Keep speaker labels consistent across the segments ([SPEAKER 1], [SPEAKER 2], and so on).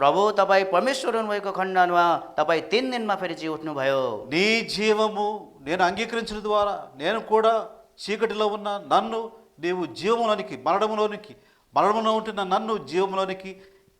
[SPEAKER 1] ప్రభు तपाईँ परमेश्वर हुनुभएको खण्डमा तपाईँ तिन दिनमा फेरि जी उठ्नुभयो
[SPEAKER 2] నీ జీవము నేను అంగీకరించిన ద్వారా నేను కూడా చీకటిలో ఉన్న నన్ను నీవు జీవములోనికి మరణములోనికి మరణములో ఉంటున్న నన్ను జీవములోనికి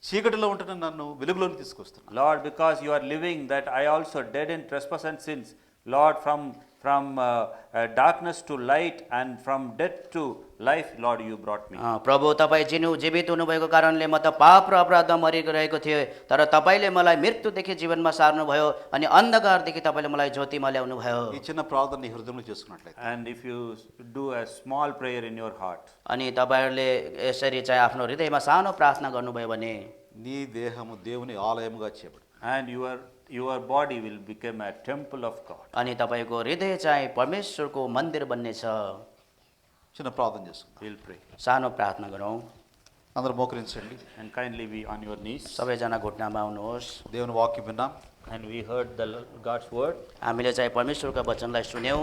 [SPEAKER 2] చీకటిలో ఉంటున్న నన్ను వెలుగులోనికి తీసుకొస్తున్నాను
[SPEAKER 3] Lord, because you are living, that I also dead in trespass and sins. Lord, from, from uh, uh, darkness to light and from death to life, Lord, you brought me.
[SPEAKER 1] अँ, प्रभु तपाईँ जिनु जीवित हुनुभएको कारणले म त पाप र अपराध मरिरहेको थिएँ तर तपाईँले मलाई मृत्युदेखि जीवनमा सार्नुभयो अनि अन्धकारदेखि तपाईँले मलाई ज्योतिमा ल्याउनु भयो
[SPEAKER 2] ఈ చిన్న ప్రార్థన నీ హృదయంలో చేసుకున్నట్లయితే
[SPEAKER 3] And if you do a small prayer in your heart,
[SPEAKER 1] अनि तपाईँहरूले यसरी चाहिँ आफ्नो हृदयमा सानो प्रार्थना गर्नुभयो भने
[SPEAKER 2] నీ దేహము దేవుని ఆలయముగా చేయబడు
[SPEAKER 3] and your, your body will become a temple of God.
[SPEAKER 1] अनि तपाईँको हृदय चाहिँ परमेश्वरको मन्दिर बन्नेछ
[SPEAKER 2] చిన్న ప్రార్థన చేసుకుందాం
[SPEAKER 3] We'll pray.
[SPEAKER 1] सानो प्रार्थना गरौँ
[SPEAKER 2] అందరూ మోకరించండి
[SPEAKER 3] And kindly be on your knees.
[SPEAKER 1] सबैजना घुटनामा आउनुहोस्
[SPEAKER 2] దేవుని వాక్యం విన్నాం
[SPEAKER 3] And we heard the God's word,
[SPEAKER 1] हामीले चाहिँ परमेश्वरको वचनलाई सुन्यौँ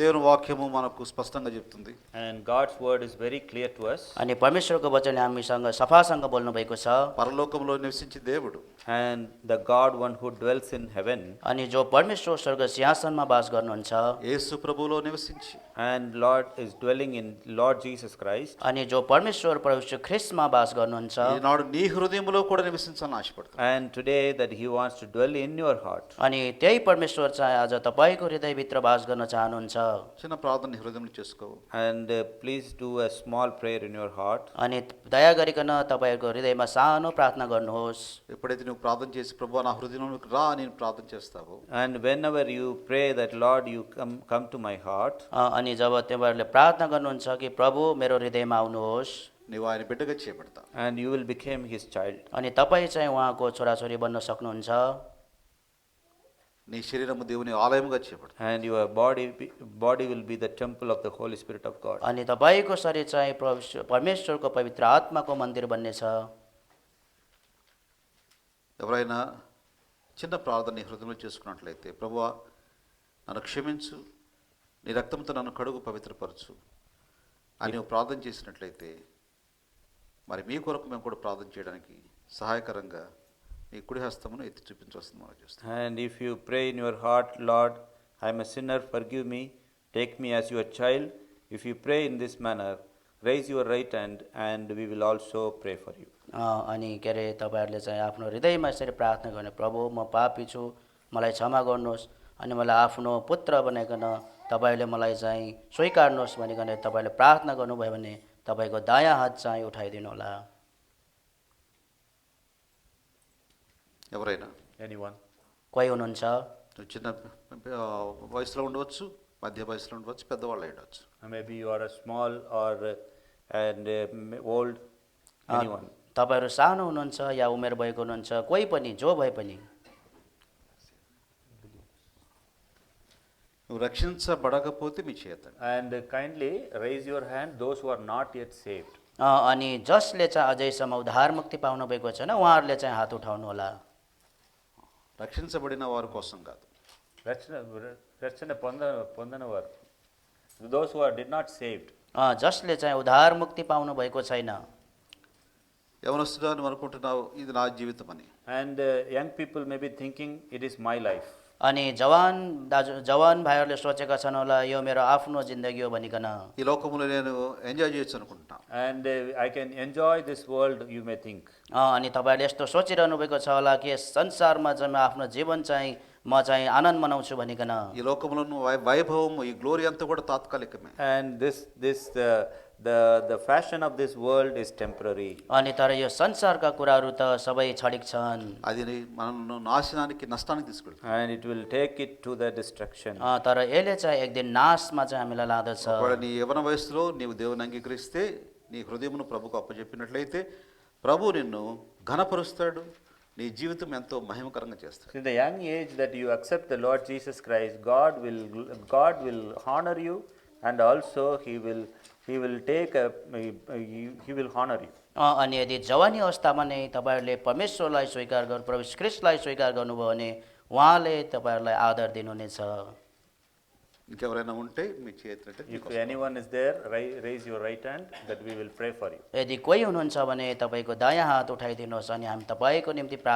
[SPEAKER 2] దేవుని వాక్యము మనకు స్పష్టంగా చెప్తుంది
[SPEAKER 3] and God's word is very clear to us.
[SPEAKER 1] अनि परमेश्वरको वचन हामीसँग सफासँग बोल्नुभएको छ
[SPEAKER 2] పరలోకంలో నివసించే దేవుడు
[SPEAKER 3] And the God, one who dwells in heaven,
[SPEAKER 1] अनि जो परमेश्वर स्वर्ग सिंहासनमा बास गर्नुहुन्छ
[SPEAKER 2] యేసు ప్రభువులో నివసించి
[SPEAKER 3] and Lord is dwelling in Lord Jesus Christ.
[SPEAKER 1] अनि जो परमेश्वर परमेश्वर ख्रिस्टमा बास गर्नुहुन्छ
[SPEAKER 2] ఈనాడు నీ హృదయంలో కూడా నివసించాలని ఆశపడుతున్నాను
[SPEAKER 3] And today that he wants to dwell in your heart.
[SPEAKER 1] अनि त्यही परमेश्वर चाहिँ आज तपाईँको हृदयभित्र बास गर्न चाहनुहुन्छ
[SPEAKER 2] చిన్న ప్రార్థన నీ హృదయంలో చేసుకో
[SPEAKER 3] And uh, please do a small prayer in your heart.
[SPEAKER 1] अनि दया गरिकन तपाईँहरूको हृदयमा सानो प्रार्थना गर्नुहोस्
[SPEAKER 2] ఎప్పుడైతే నువ్వు ప్రార్థన చేసి ప్రభు నా హృదయంలోకి రా అని నేను ప్రార్థన చేస్తావో
[SPEAKER 3] And whenever you pray that Lord you come come to my heart,
[SPEAKER 1] अ, अनि जब तपाईँहरूले प्रार्थना गर्नुहुन्छ कि प्रभु मेरो हृदयमा आउनुहोस्
[SPEAKER 2] నువ్వు ఆయన బిడ్డగా చేపడతావు
[SPEAKER 3] and you will become his child.
[SPEAKER 1] अनि तपाईँ चाहिँ उहाँको छोराछोरी बन्न सक्नुहुन्छ
[SPEAKER 2] నీ శరీరము దేవుని ఆలయముగా చేపడతావు
[SPEAKER 3] And your body be- body will be the temple of the Holy Spirit of God.
[SPEAKER 1] अनि तपाईँको शरीर चाहिँ परमेश्वर- परमेश्वरको पवित्र आत्माको मन्दिर बन्नेछ
[SPEAKER 2] ఎవరైనా చిన్న ప్రార్థన నీ హృదయంలో చేసుకున్నట్లయితే ప్రభువా నన్ను క్షమించు నీ రక్తంతో నన్ను కడుగు పవిత్రపరచు అని నువ్వు ప్రార్థన చేసినట్లయితే మరి మీ కొరకు మేము కూడా ప్రార్థన చేయడానికి సహాయకరంగా మీ కుడి హస్తమును ఎత్తి చూపించవలసింది మనం చూస్తాం
[SPEAKER 3] And if you pray in your heart, Lord, I am a sinner, forgive me, take me as your child. If you pray in this manner, raise your right hand and we will also pray for you.
[SPEAKER 1] अ, अनि के अरे तपाईँहरूले चाहिँ आफ्नो हृदयमा यसरी प्रार्थना गर्ने प्रभु म पापी छु मलाई क्षमा गर्नुहोस् अनि मलाई आफ्नो पुत्र बनाइकन तपाईँले मलाई चाहिँ स्वीकार्नुहोस् भनिकन तपाईँले प्रार्थना गर्नुभयो भने तपाईँको दायाँ हात चाहिँ उठाइदिनु होला
[SPEAKER 2] ఎవరైనా
[SPEAKER 3] Anyone?
[SPEAKER 1] कोही हुनुहुन्छ
[SPEAKER 2] నువ్వు చిన్న ఆ, వయసులో ఉండవచ్చు మధ్య వయసులో ఉండవచ్చు పెద్దవాళ్ళు ఉండవచ్చు
[SPEAKER 3] Uh, Maybe you are a small or uh, and uh, m- old,
[SPEAKER 1] uh,
[SPEAKER 3] anyone.
[SPEAKER 1] तपाईँहरू सानो हुनुहुन्छ या उमेर भएको हुनुहुन्छ कोही पनि जो भए पनि
[SPEAKER 2] నువ్వు రక్షించబడకపోతే మీ చేత
[SPEAKER 3] And uh, kindly raise your hand, those who are not yet saved.
[SPEAKER 1] अ, अनि जसले चाहिँ अझैसम्म उद्धार मुक्ति पाउनुभएको छैन उहाँहरूले चाहिँ हात उठाउनुहोला
[SPEAKER 2] రక్షించబడిన వారి కోసం కాదు
[SPEAKER 3] Rachana, Rachana Panda- Pandanavar. Those who are did not saved.
[SPEAKER 1] अ, जसले चाहिँ उद्धार मुक्ति पाउनुभएको छैन
[SPEAKER 2] యవనస్తుడా నువ్వు అనుకుంటున్నావు ఇది నా జీవితం అని
[SPEAKER 3] And uh, young people may be thinking, it is my life.
[SPEAKER 1] अनि जवान दाजु जवान भाइहरूले सोचेका छन् होला यो मेरो आफ्नो जिन्दगी हो भनिकन
[SPEAKER 2] ఈ లోకంలో నేను ఎంజాయ్ చేయొచ్చు అనుకుంటున్నాను
[SPEAKER 3] And uh, I can enjoy this world, you may think.
[SPEAKER 1] अ, अनि तपाईँहरूले यस्तो सोचिरहनु भएको छ होला कि यस संसारमा चाहिँ म आफ्नो जीवन चाहिँ म चाहिँ ఆनन्द मनाउँछु भनिकन
[SPEAKER 2] ఈ లోకంలో నువ్వు వై- వైభవము ఈ గ్లోరీ అంతా కూడా తాత్కాలికమే
[SPEAKER 3] And this, this, uh, the, the fashion of this world is temporary.
[SPEAKER 1] अनि तर यो संसारका कुराहरू त सबै छडिक छन्
[SPEAKER 2] అది నీ- మనల్ని నాశనానికి నష్టానికి తీసుకెళ్తుంది
[SPEAKER 3] And it will take it to the destruction.
[SPEAKER 1] अ, तर यसले चाहिँ एक दिन नाशमा चाहिँ हामीलाई लाँदछ
[SPEAKER 2] ఒకవేళ నీ యవన వయసులో నీవు దేవుని అంగీకరిస్తే నీ హృదయమును ప్రభుకు అప్పచెప్పినట్లయితే ప్రభు నిన్ను ఘనపరుస్తాడు నీ జీవితం ఎంతో మహిమకరంగా చేస్తాడు
[SPEAKER 3] In the young age that you accept the Lord Jesus Christ, God will, God will honor you and also he will, he will take a, he will honor you.
[SPEAKER 1] अ, अनि यदि जवानी अवस्थामा नै तपाईँहरूले परमेश्वरलाई स्वीकार गर्नु प्रभु क्रिस्टलाई स्वीकार गर्नुभयो भने उहाँले तपाईँहरूलाई आदर दिनुहुनेछ
[SPEAKER 2] ఇంకెవరైనా ఉంటే మీరు చేయట్లయితే
[SPEAKER 3] If anyone is there, ri- raise your right hand that we will pray for you.
[SPEAKER 1] यदि कोही हुनुहुन्छ भने तपाईँको दायाँ हात उठाइदिनुहोस् अनि हामी तपाईँको निम्ति प्रार्थना